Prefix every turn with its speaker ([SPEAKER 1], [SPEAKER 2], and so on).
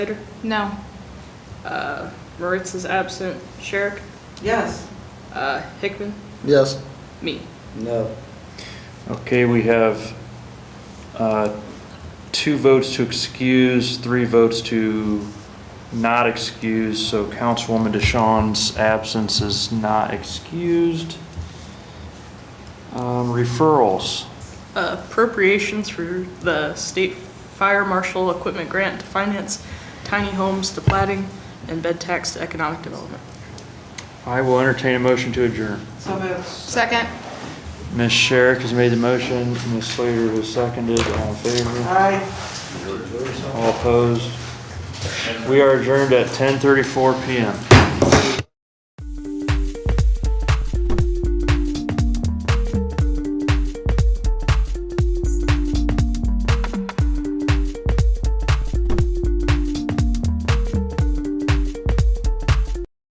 [SPEAKER 1] Slater,
[SPEAKER 2] No.
[SPEAKER 1] uh, Moritz is absent, Sherrick,
[SPEAKER 3] Yes.
[SPEAKER 1] uh, Hickman,
[SPEAKER 4] Yes.
[SPEAKER 1] me.
[SPEAKER 4] No.
[SPEAKER 5] Okay, we have uh, two votes to excuse, three votes to not excuse, so Councilwoman DeShawn's absence is not excused. Um, Referrals,
[SPEAKER 1] Appropriations for the state fire marshal equipment grant to finance tiny homes to plating and bed tax to economic development.
[SPEAKER 5] I will entertain a motion to adjourn.
[SPEAKER 3] So moved.
[SPEAKER 2] Second?
[SPEAKER 5] Ms. Sherrick has made the motion, Ms. Slater has seconded, all in favor,
[SPEAKER 3] Aye.
[SPEAKER 5] all opposed. We are adjourned at 10:34 PM.